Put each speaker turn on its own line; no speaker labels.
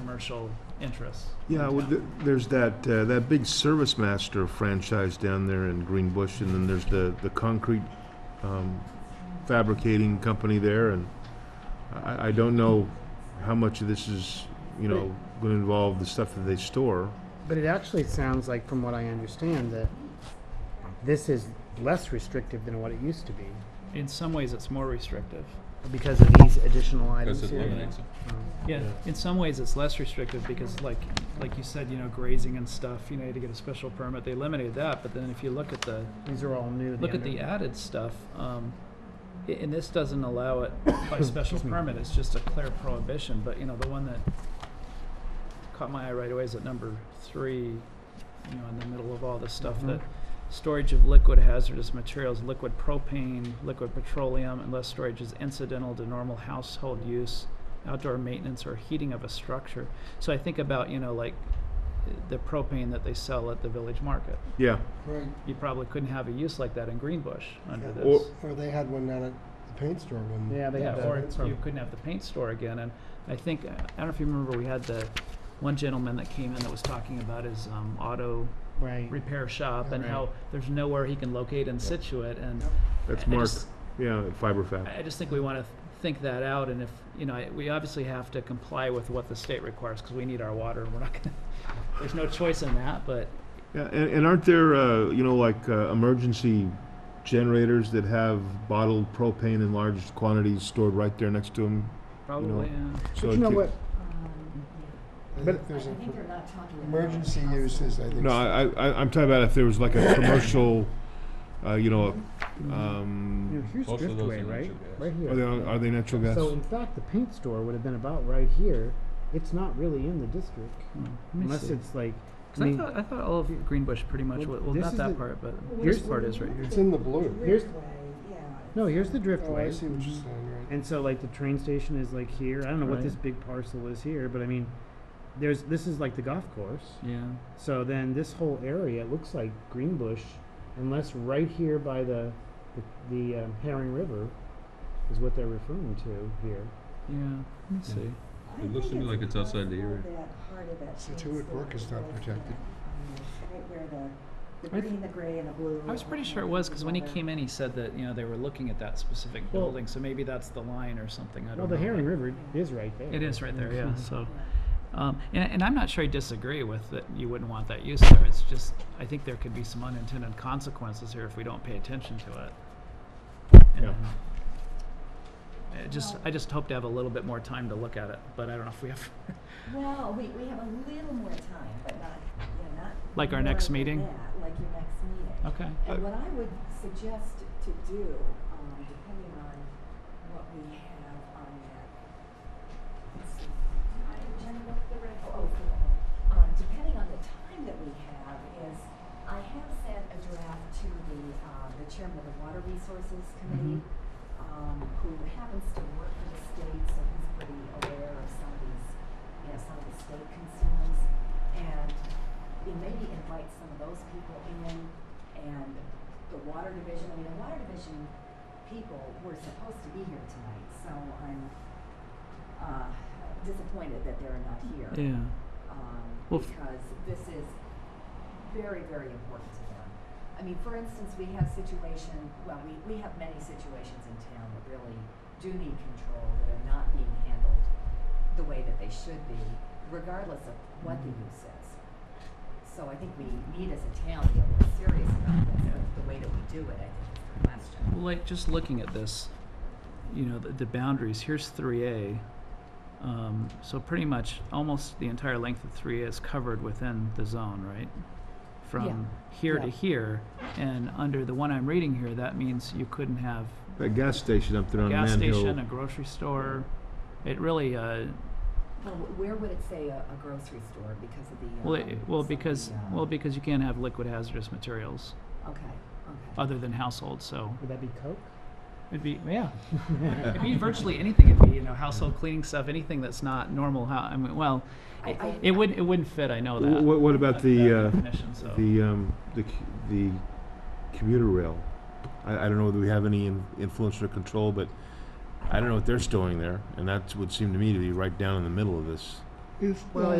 commercial interests. in
Yeah, well,
town.
th- there's that, uh, that big Service Master franchise down there in Green Bush, and then there's the, the concrete, um, fabricating company there, and I, I don't know how much of this is, you know, gonna involve the stuff that they store.
But it actually sounds like, from what I understand, that this is less restrictive than what it used to be
In some ways, it's more restrictive.
because of these additional items
Because it
here.
eliminates it.
Um,
Yeah,
Yeah.
in some ways, it's less restrictive because like, like you said, you know, grazing and stuff, you know, you had to get a special permit. They eliminated that, but then if you look at the,
These are all new.
look at
under-
the added stuff, um, a- and this doesn't allow it by special
Excuse me.
permit, it's just a clear prohibition, but you know, the one that caught my eye right away is at number three, you know, in the middle of all this stuff,
Mhm.
that storage of liquid hazardous materials, liquid propane, liquid petroleum, unless storage is incidental to normal household use, outdoor maintenance or heating of a structure. So I think about, you know, like uh, the propane that they sell at the village market
Yeah,
Right,
you probably couldn't have a use like that in Greenbush under
Yeah.
this.
Or-
or they had one down at the paint store when.
Yeah, they
Yeah,
have
or
that.
it's-
you couldn't have the paint store again, and I think, I don't know if you remember, we had the one gentleman that came in that was talking about his, um, auto
Right.
repair shop
Yeah.
and how there's nowhere he can locate in Situate, and
Yep.
that's
I- I
Mark,
just-
yeah, Fiber
I,
Fab.
I just think we wanna think that out, and if, you know, I- we obviously have to comply with what the state requires, cause we need our water, and we're not gonna, there's no choice in that, but
Yeah, and, and aren't there, uh, you know, like, uh, emergency generators that have bottled propane in large quantities stored right there next to them?
probably, uh, hmm, yeah.
So
But you know
if
what?
I
But-
think there's
Um, I think they're
an
not talking about.
emergency
hospital.
uses, I think.
No, I, I, I'm talking about if there was like a commercial, uh, you know,
You know,
um,
here's
Most of those are
Driftway, right?
natural gas.
Right here.
are they, are they natural gas?
So in fact, the paint store would have been about right here. It's not really in the district,
Hmm, let me
unless
see.
it's like. I
'Cause I
mean,
thought, I thought all of Greenbush pretty much,
Well,
wa- well,
this
not
is
that
the-
part, but
here's-
this part is right here.
It's in the blue.
Here's-
Driftway, yeah.
no, here's the
Oh, I
driftway.
see what you're saying, right.
And so like the train station is like here. I don't know what
Right.
this big parcel is here, but I mean, there's this is like the golf course.
Yeah.
So then this whole area looks like Greenbush, unless right here by the the, the um, Herring River is what they're referring to here.
Yeah, let me see.
I
It looks to
think
me like it's outside the
across all
area.
that part of that
Situate
Peninsula
Brook is not
Driftway,
protected.
um, Right where the,
I
the
th-
green, the gray, and the blue.
I was pretty sure it was, because when he came in, he said that, you know, they were looking at that specific
Well-
building, so maybe that's the line or something, I don't know.
Well, the Herring
but-
River is right there.
It is right there, yeah,
Oh.
so, um, and, and I'm not sure I disagree with that you wouldn't want that use there, it's just, I think there could be some unintended consequences here if we don't pay attention to it.
Yeah.
And I just, I just hope to have a little bit more time to look at it, but I don't know if we have,
Well, we, we have a little more time, but not, yeah, not.
Like our
more
next
than
meeting?
that, Like your next meeting.
okay.
And what I would suggest to do, um, depending on what we have on that, let's see, time, Jenny, what's the right, oh, for the, um, depending on the time that we have is, I have sent a draft to the, uh, the chairman of the Water Resources Committee, um, who happens to work for the state, so he's pretty aware of some of these, you know, some of the state concerns. And we maybe invite some of those people in and the water division, I mean, the water division people were supposed to be here tonight, so I'm, uh, disappointed that they're not here.
Yeah,
Um,
Well, f-
because this is very, very important to them. I mean, for instance, we have situation, well, we, we have many situations in town that really do need control, that are not being handled the way that they should be, regardless of what the use is. So I think we need as a town to get more serious about this, but the way that we do it, I think is the question.
Well, like just looking at this, you know, the, the boundaries, here's three A. Um, so pretty much almost the entire length of three A is covered within the zone, right? From here to
Yeah.
here, and under the one I'm reading here, that means you couldn't have
That gas station up there
a
on
gas
Man
station, a
Hill.
grocery store. It really, uh,
Well, wh- where would it say a, a grocery store because of the, um,
well, it, well,
some of the,
because,
uh,
well, because you can't have liquid hazardous materials
Okay, okay.
other than household, so
Would that be Coke?
it'd be, yeah. It'd be virtually anything. It'd be, you know, household cleaning stuff, anything that's not normal. How, I mean, well,
I-
it,
I-
it wouldn't, it wouldn't fit. I know that.
What, what about the, uh,
definition, so.
the, um, the, c- the commuter rail? I, I don't know whether we have any in- influence or control, but I don't know what they're storing there, and that would seem to me to be right down in the middle of this.
is
Well,
not